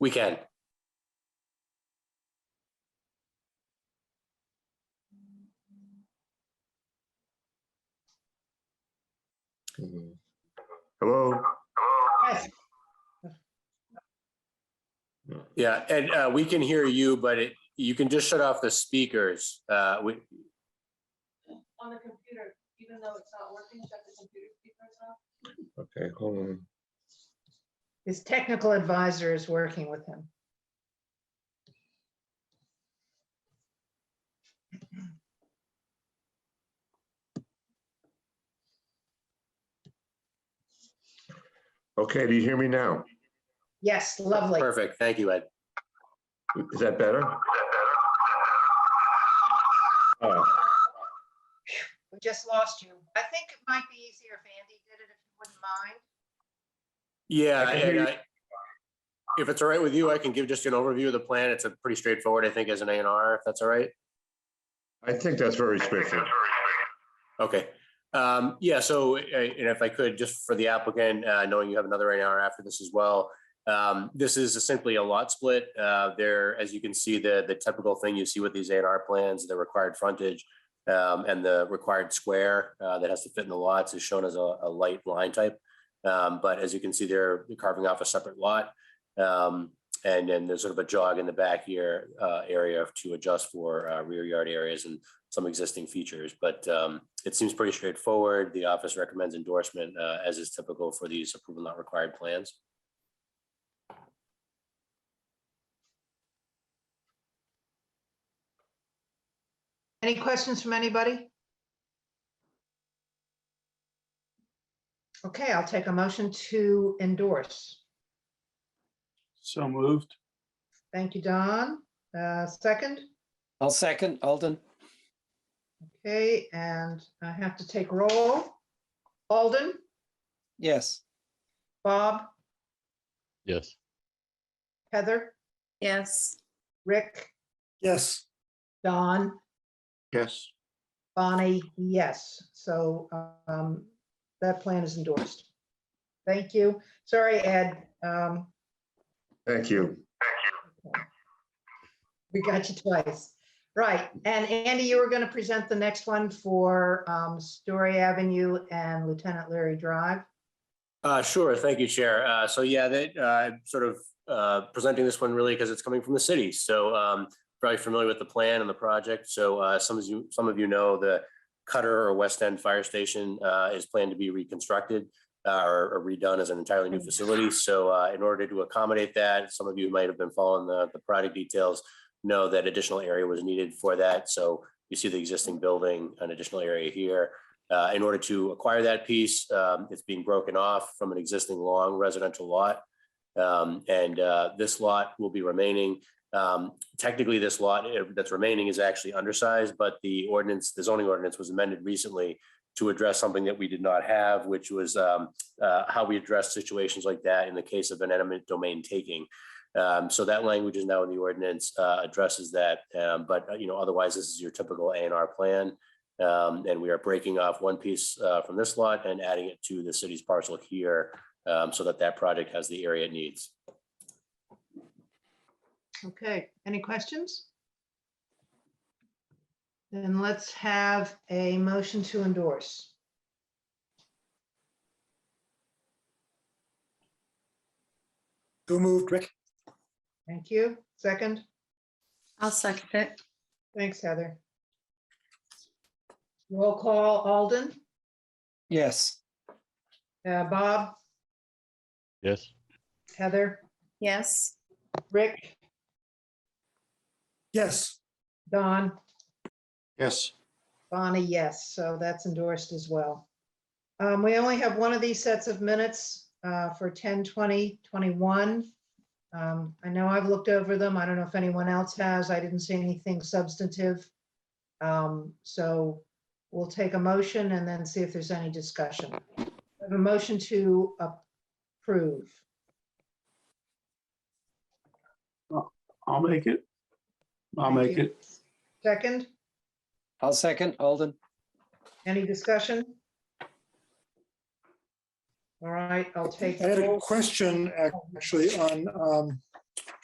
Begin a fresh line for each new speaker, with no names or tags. We can.
Mhm. Hello?
Yes,
Yeah, and uh, we can hear you, but it, you can just shut off the speakers. Uh, we,
on the computer, even though it's not working, check the computer speakers off.
Okay, hold on.
his technical advisor is working with him.
Okay, do you hear me now?
Yes, lovely.
perfect. Thank you, Ed.
Is that better? Oh,
We just lost you. I think it might be easier if Andy did it, if you wouldn't mind.
Yeah,
I can hear
and
you.
I, if it's all right with you, I can give just an overview of the plan. It's a pretty straightforward, I think, as an A and R, if that's all right.
I think that's very straightforward.
Okay, um, yeah, so, uh, and if I could, just for the applicant, uh, knowing you have another A&R after this as well. Um, this is simply a lot split, uh, there, as you can see, the, the typical thing you see with these A and R plans, the required frontage. Um, and the required square, uh, that has to fit in the lots is shown as a, a light line type. Um, but as you can see, they're carving off a separate lot. Um, and then there's sort of a jog in the back here, uh, area to adjust for, uh, rear yard areas and some existing features, but um, it seems pretty straightforward. The office recommends endorsement uh, as is typical for these approval not required plans.
Any questions from anybody? Okay, I'll take a motion to endorse.
So moved.
Thank you, Don. Uh, Second,
I'll second, Alden.
okay, and I have to take roll. Alden,
Yes,
Bob,
Yes.
Heather,
Yes.
Rick,
Yes.
Don,
Yes.
Bonnie, yes. So um, that plan is endorsed. Thank you. Sorry, Ed. um,
Thank you.
We got you twice. Right. And Andy, you were going to present the next one for um, Story Avenue and Lieutenant Larry Drive.
Uh, sure, thank you, Chair. Uh, so yeah, that, uh, sort of, uh, presenting this one really because it's coming from the city. So, um, probably familiar with the plan and the project. So, uh, some of you, some of you know, the Cutter or West End Fire Station, uh, is planned to be reconstructed uh, or or redone as an entirely new facility. So, uh, in order to accommodate that, some of you might have been following the, the product details, know that additional area was needed for that. So you see the existing building, an additional area here. Uh, in order to acquire that piece, um, it's being broken off from an existing long residential lot. Um, and, uh, this lot will be remaining. Um, technically, this lot uh, that's remaining is actually undersized, but the ordinance, the zoning ordinance was amended recently to address something that we did not have, which was, um, uh, how we address situations like that in the case of an eminent domain taking. Um, so that language is now in the ordinance, uh, addresses that. Um, but, uh, you know, otherwise, this is your typical A and R plan. Um, and we are breaking off one piece, uh, from this lot and adding it to the city's parcel here, um, so that that project has the area it needs.
Okay, any questions? Then let's have a motion to endorse.
Who moved, Rick?
Thank you. Second,
I'll second it.
thanks, Heather. Roll call, Alden,
yes,
uh, Bob,
Yes.
Heather,
Yes.
Rick,
Yes.
Don.
Yes.
Bonnie, yes, so that's endorsed as well. Um, we only have one of these sets of minutes, uh, for 10, 20, 21. Um, I know I've looked over them. I don't know if anyone else has. I didn't see anything substantive. Um, so we'll take a motion and then see if there's any discussion. I have A motion to approve.
I'll make it. I'll
Thank
make
you.
it.
Second,
I'll second, Alden.
any discussion? All right, I'll take.
I had a uh,
roll.
question ac- actually on um,